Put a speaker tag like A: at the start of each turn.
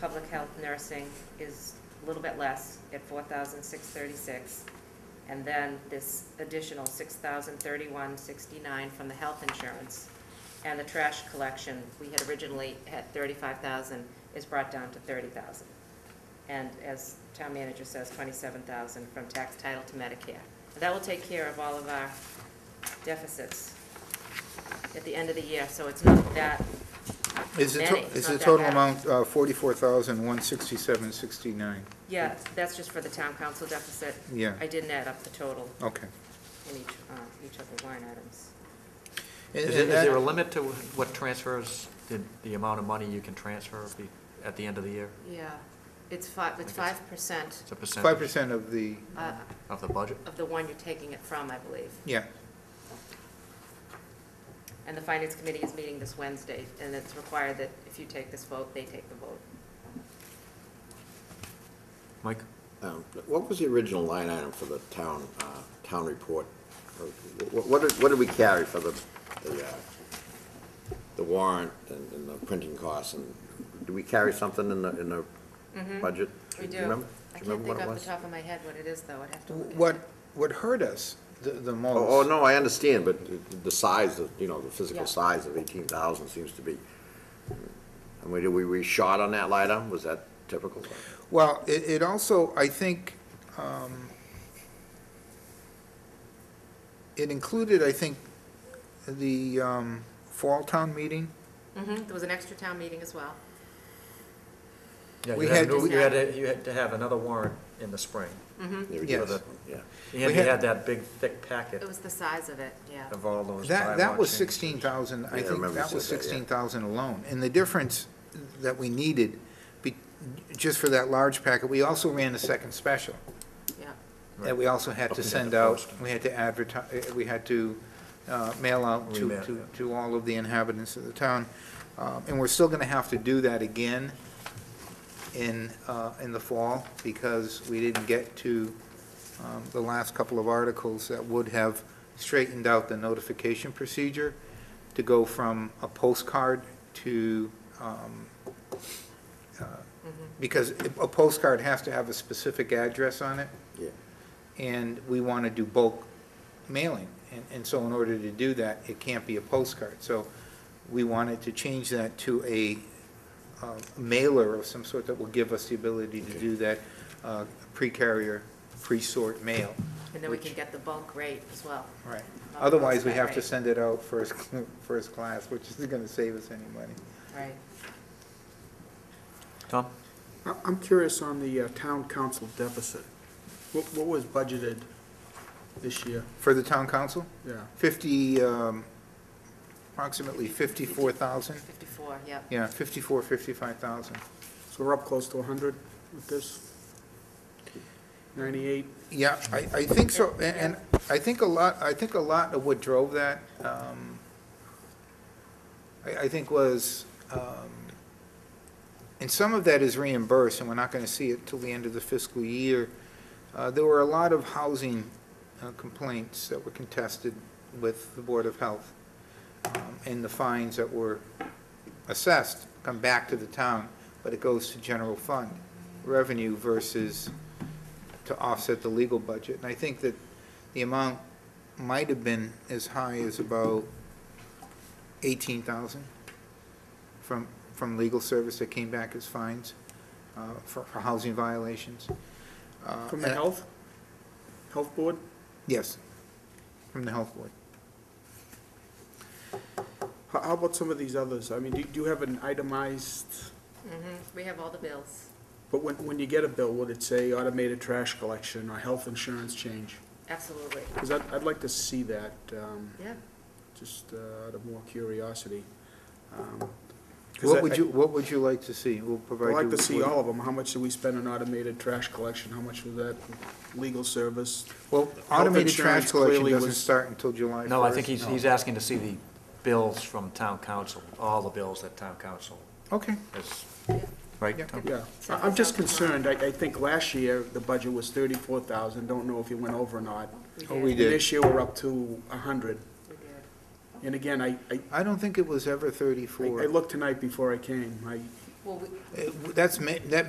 A: Public health nursing is a little bit less at four thousand six thirty-six. And then this additional six thousand thirty-one sixty-nine from the health insurance. And the trash collection, we had originally had thirty-five thousand, is brought down to thirty thousand. And as town manager says, twenty-seven thousand from tax title to Medicare. And That will take care of all of our deficits at the end of the year, so it's not that
B: Is the,
A: Many,
B: to-
A: it's
B: is
A: not
B: the
A: that
B: total
A: bad.
B: amount uh, 44,167.69?
A: Yeah, that's just for the town council deficit.
B: Yeah.
A: I didn't add up the total
B: Okay.
A: in each, uh, each of the line items.
B: And-
C: Is
B: and
C: it- is there a
B: that-
C: limit to what transfers, the, the amount of money you can transfer be- at the end of the year?
A: Yeah, it's five, it's
C: Okay.
A: five percent uh,
C: It's a
B: Five
C: percentage
B: percent of the,
A: of
C: of the budget?
A: the one you're taking it from, I believe.
B: yeah,
A: And the finance committee is meeting this Wednesday, and it's required that if you take this vote, they take the vote.
C: Mike?
D: Um, What was the original line item for the town, uh, town report? Or wh- What did, what did we carry for the, the, uh, the warrant and and the printing costs? And do we carry something in the, in the budget?
A: Mm-hmm. We
D: you
A: do.
D: remember-
A: I can't
D: Do you remember
A: think
D: what it
A: off the
D: was?
A: top of my head what it is, though. I'd have to look at it.
B: what, what hurt us the the
D: Oh, oh,
B: most.
D: no, I understand, but the- the size of, you know, the physical
A: Yeah.
D: size of eighteen thousand seems to be, I mean, did we, we shot on that line item? Was that typical?
A: Mm-hmm.
B: Well, it, it also, I think, um, it included, I think, the um, fall town meeting.
A: Mhm, there was an extra town meeting as well.
C: Yeah,
B: We
C: you had,
B: had-
C: to-
A: we-
C: you had, to- you had to have another warrant in the spring.
D: Yeah, we did.
B: Yes.
D: Yeah.
C: And you
B: had-
C: had that big thick packet
A: It was the size of it, yeah.
D: Oh.
C: of all those bylaw
B: That, that was
C: changes.
B: 16,000,
D: Yeah, I
B: I think
D: remember you
B: that was
D: said that, yeah.
B: 16,000 alone. And the difference that we needed, be- just for that large packet, we also ran a second special.
A: Yeah.
B: that we also had
C: Up
B: to
C: to the
B: send out,
C: post.
B: we had to advertise, we had to uh, mail out to,
C: Remail,
B: to,
C: yeah.
B: to all of the inhabitants of the town. Uh, And we're still gonna have to do that again in, uh, in the fall, because we didn't get to um, the last couple of articles that would have straightened out the notification procedure to go from a postcard to, um, uh, because a postcard has to have a specific address on it
D: Yeah.
B: and we want to do bulk mailing. And, and so in order to do that, it can't be a postcard. So we wanted to change that to a uh, mailer of some sort that will give us the ability to do that uh, pre-carrier, pre-sort mail.
A: And then we
B: Which-
A: can get the bulk rate as well.
B: Right.
A: Not a
B: Otherwise, we have to
A: postcard
B: send it out first, cl- first class, which isn't going to save us any money.
A: Right.
C: Tom?
E: I- I'm curious on the uh, town council deficit. What what was budgeted this year?
B: For the town council,
E: Yeah,
B: 50, um, approximately 54,000?
A: Fifty-four, yep.
B: Yeah, 54, 55,000.
E: so we're up close to 100 with this? 98?
B: Yeah, I, I think so, a- and I think a lot, I think a lot of what drove that, um, I, I think was, um, and some of that is reimbursed, and we're not gonna see it till the end of the fiscal year. Uh, there were a lot of housing uh, complaints that were contested with the Board of Health, um, and the fines that were assessed come back to the town, but it goes to general fund revenue versus to offset the legal budget. And I think that the amount might have been as high as about eighteen thousand from, from legal service that came back as fines uh, for, for housing violations. Uh,
E: From the
B: and-
E: health? Health board?
B: Yes, from the health board.
E: How how about some of these others? I mean, do do you have an itemized,
A: Mhm. We have all the bills.
E: but when when you get a bill, would it say automated trash collection or health insurance change?
A: Absolutely.
E: Because I'd I'd like to see that, um,
A: Yeah.
E: just uh, out of more curiosity. Um, 'cause I-
B: What would you, what would you like to see? We'll provide
E: I'd
B: you.
E: like to see
B: with-
E: all of them. How much do we spend on automated trash collection? How much was that legal service?
B: Well, automated trash
E: insurance
B: collection
E: clearly
B: doesn't
E: was-
B: start until July first.
C: No, I think he's, he's asking to see the bills from town council, all the bills that town council
B: Okay,
C: has,
B: Yeah.
C: right, Tom?
E: Yeah. I- I'm just concerned. I, I think last year, the budget was thirty-four thousand. Don't know if you went over or not.
A: We
B: Oh, we
A: did.
B: did.
E: And this year, we're up to a hundred.
A: We did.
E: And again, I, I,
B: I don't think it was ever
E: I
B: thirty-four.
E: I looked tonight before I came. I,
A: Well, we,
B: Uh, That's, ma- that